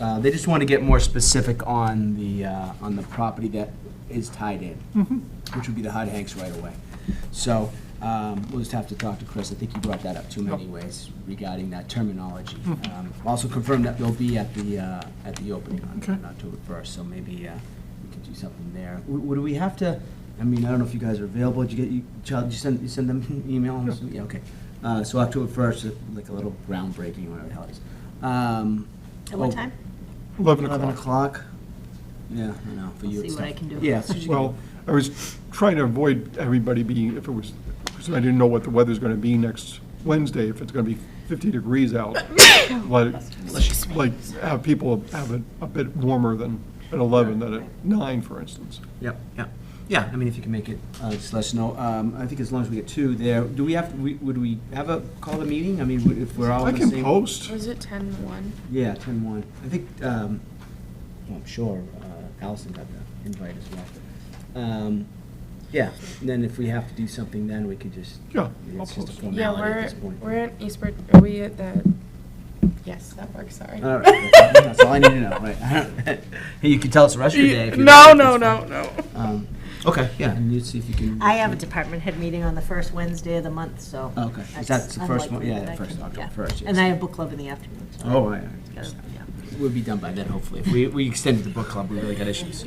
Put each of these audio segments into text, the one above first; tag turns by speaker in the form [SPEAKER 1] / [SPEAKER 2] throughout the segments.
[SPEAKER 1] Uh, They just want to get more specific on the, uh, on the property that is tied in, which would be the Hard Hanks right away. So um, we'll just have to talk to Chris. I think he brought that up too many ways regarding that terminology. Um, Also confirmed that they'll be at the, uh, at the opening on
[SPEAKER 2] Okay.
[SPEAKER 1] on October 1st, so maybe uh, we could do something there. W- Would we have to, I mean, I don't know if you guys are available, did you get, you, Chad, did you send, you send them an email? Yeah, okay. Uh, So October 1st, uh, like a little groundbreaking, whatever the hell it is. Um,
[SPEAKER 3] At what
[SPEAKER 1] oh,
[SPEAKER 3] time?
[SPEAKER 2] 11
[SPEAKER 1] 11
[SPEAKER 2] o'clock.
[SPEAKER 1] o'clock? Yeah, I know, for
[SPEAKER 3] I'll
[SPEAKER 1] you.
[SPEAKER 3] see
[SPEAKER 1] it's
[SPEAKER 3] what I
[SPEAKER 1] tough.
[SPEAKER 3] can do.
[SPEAKER 1] Yeah. see what you
[SPEAKER 2] Well, I was trying to avoid everybody being, if it was, because I didn't know what the weather's going to be next Wednesday, if it's going to be 50 degrees out. Let, it- like, have people have it a bit warmer than at 11 than at 9, for instance.
[SPEAKER 1] Yep, yep. Yeah, I mean, if you can make it, uh, just let us know. Um, I think as long as we get two there, do we have, we- would we have a, call the meeting? I mean, w- if we're all
[SPEAKER 2] I
[SPEAKER 1] in the
[SPEAKER 2] can
[SPEAKER 1] same.
[SPEAKER 2] post.
[SPEAKER 4] Was it ten one?
[SPEAKER 1] Yeah, ten one. I think, um, well, I'm sure, uh, Allison got the invite as well. Um, yeah, and then if we have to do something, then we could just.
[SPEAKER 2] Yeah, I'll
[SPEAKER 1] It's just a
[SPEAKER 2] post.
[SPEAKER 4] Yeah,
[SPEAKER 1] formality at
[SPEAKER 4] we're,
[SPEAKER 1] this point.
[SPEAKER 4] we're at Eastbrook, are we at the, yes, that works, sorry.
[SPEAKER 1] All right, that's all I need to know, right? Hey, you can tell us the rest of your day if you.
[SPEAKER 4] No,
[SPEAKER 1] like.
[SPEAKER 4] no,
[SPEAKER 1] It's
[SPEAKER 4] no,
[SPEAKER 1] fine.
[SPEAKER 4] no.
[SPEAKER 1] Um, okay, yeah, and you see if you can.
[SPEAKER 3] I have a department head meeting on the first Wednesday of the month, so.
[SPEAKER 1] Oh, Okay,
[SPEAKER 3] that's
[SPEAKER 1] that's the first one,
[SPEAKER 3] unlikely
[SPEAKER 1] yeah,
[SPEAKER 3] that
[SPEAKER 1] the
[SPEAKER 3] I
[SPEAKER 1] first,
[SPEAKER 3] can-
[SPEAKER 1] October
[SPEAKER 3] yeah.
[SPEAKER 1] first, yes.
[SPEAKER 3] And I have book club in the afternoon, so.
[SPEAKER 1] Oh, I,
[SPEAKER 3] gotta- yeah.
[SPEAKER 1] we'll be done by then, hopefully. If we, we extended the book club, we really got issues.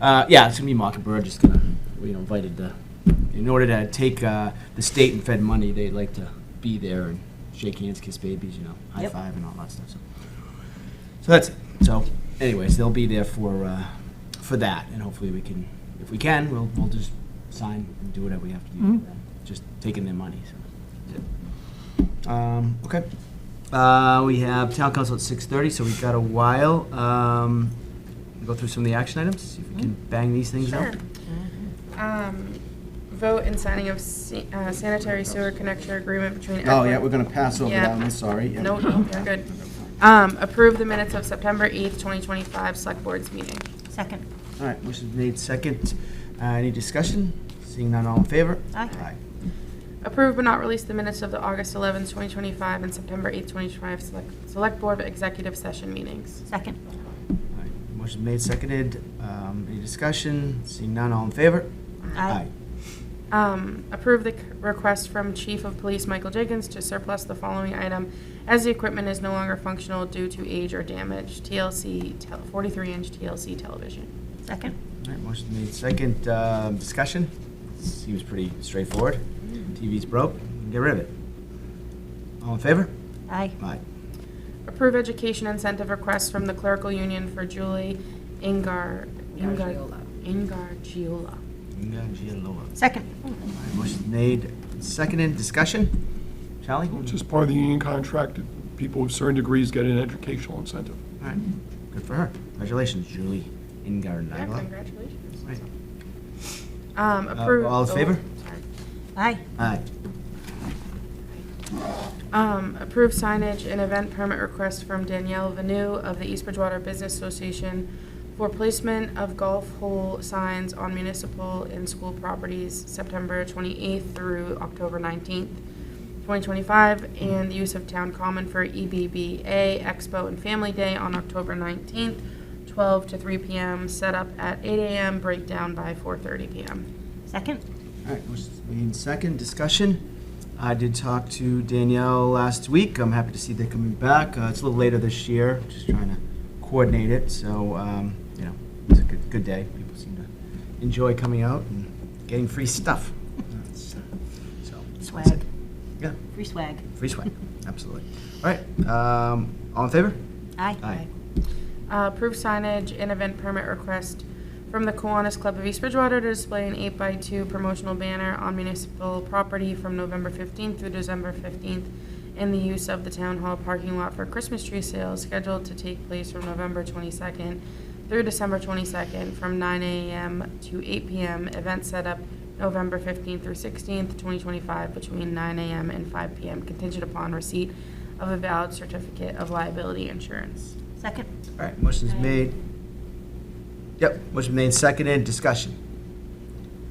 [SPEAKER 1] Uh, yeah, it's gonna be Mockingbird, just gonna, we invited the, in order to take, uh, the state and Fed money, they like to be there and shake hands, kiss babies, you know, high
[SPEAKER 3] Yep.
[SPEAKER 1] five and all that stuff, so. So that's it. So anyways, they'll be there for, uh, for that, and hopefully we can, if we can, we'll, we'll just sign and do whatever we have to do.
[SPEAKER 2] Mhm.
[SPEAKER 1] Just taking their money, so. that's it. Um, okay. Uh, we have town council at six thirty, so we've got a while. Um, go through some of the action items, see if we can bang these things out.
[SPEAKER 4] Sure. Um, vote in signing of sa- uh, sanitary sewer connection agreement between.
[SPEAKER 1] Oh,
[SPEAKER 4] Edward-
[SPEAKER 1] yeah, we're gonna pass over that one, sorry. Yeah.
[SPEAKER 4] No, no, you're good. Um, approve the minutes of September eighth, twenty twenty-five, select board's meeting.
[SPEAKER 3] Second.
[SPEAKER 1] All right, motion made second. Uh, any discussion? Seeing none, all in favor?
[SPEAKER 3] Aye.
[SPEAKER 4] Approve but not release the minutes of the August eleventh, twenty twenty-five, and September eighth, twenty twenty-five, select, select board executive session meetings.
[SPEAKER 3] Second.
[SPEAKER 1] All right, Motion made seconded. Um, any discussion? Seeing none, all in favor?
[SPEAKER 3] Aye.
[SPEAKER 4] Um, approve the c- request from Chief of Police Michael Jenkins to surplus the following item as the equipment is no longer functional due to age or damage, TLC, tel- 43-inch TLC television.
[SPEAKER 3] Second.
[SPEAKER 1] All right, motion made second. Um, discussion? Seems pretty straightforward. TV's broke, get rid of it. All in favor?
[SPEAKER 3] Aye.
[SPEAKER 1] Aye.
[SPEAKER 4] Approve education incentive request from the clerical union for Julie Ingar. Ingar Ingargiola.
[SPEAKER 1] All
[SPEAKER 3] Second.
[SPEAKER 1] right, Motion made seconded. Discussion? Charlie? All
[SPEAKER 2] Which is part of the union contract, that people with certain degrees get an educational incentive.
[SPEAKER 1] right, good for her. Congratulations, Julie Ingarden.
[SPEAKER 4] Yeah, congratulations.
[SPEAKER 1] Right.
[SPEAKER 4] Um, approve.
[SPEAKER 1] Uh, all in
[SPEAKER 4] oh,
[SPEAKER 1] favor?
[SPEAKER 4] sorry.
[SPEAKER 3] Aye.
[SPEAKER 1] Aye.
[SPEAKER 4] Um, approve signage and event permit request from Danielle Vanu of the East Bridgewater Business Association for placement of golf hole signs on municipal and school properties September twenty-eighth through October nineteenth, twenty twenty-five, and the use of town common for E EBBA Expo and Family Day on October nineteenth, twelve to three PM, set up at eight AM, breakdown by four thirty PM.
[SPEAKER 3] Second.
[SPEAKER 1] All right, motion made second. Discussion? I did talk to Danielle last week. I'm happy to see they're coming back. Uh, it's a little later this year, just trying to coordinate it. So, um, you know, it's a good, good day. People seem to enjoy coming out and getting free stuff. That's, uh, So, that's it.
[SPEAKER 3] Swag.
[SPEAKER 1] Yeah.
[SPEAKER 3] Free swag.
[SPEAKER 1] Free swag, absolutely. All right, um, all in favor?
[SPEAKER 3] Aye.
[SPEAKER 1] Aye.
[SPEAKER 4] Uh, Approve signage and event permit request from the Kiwanis Club of East Bridgewater to display an 8x2 promotional banner on municipal property from November 15th through December 15th, and the use of the town hall parking lot for Christmas tree sales scheduled to take place from November 22nd through December 22nd, from 9 a.m. to 8 p.m. Event setup November 15th through 16th, 2025, between 9 a.m. and 5 p.m., contingent upon receipt of a valid certificate of liability insurance.
[SPEAKER 3] Second.
[SPEAKER 1] All right, motion's made. Yep, motion made, seconded, discussion.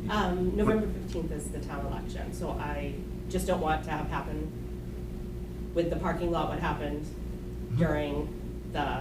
[SPEAKER 5] Um, November fifteenth is the town election, so I just don't want to have happen with the parking lot what happened during the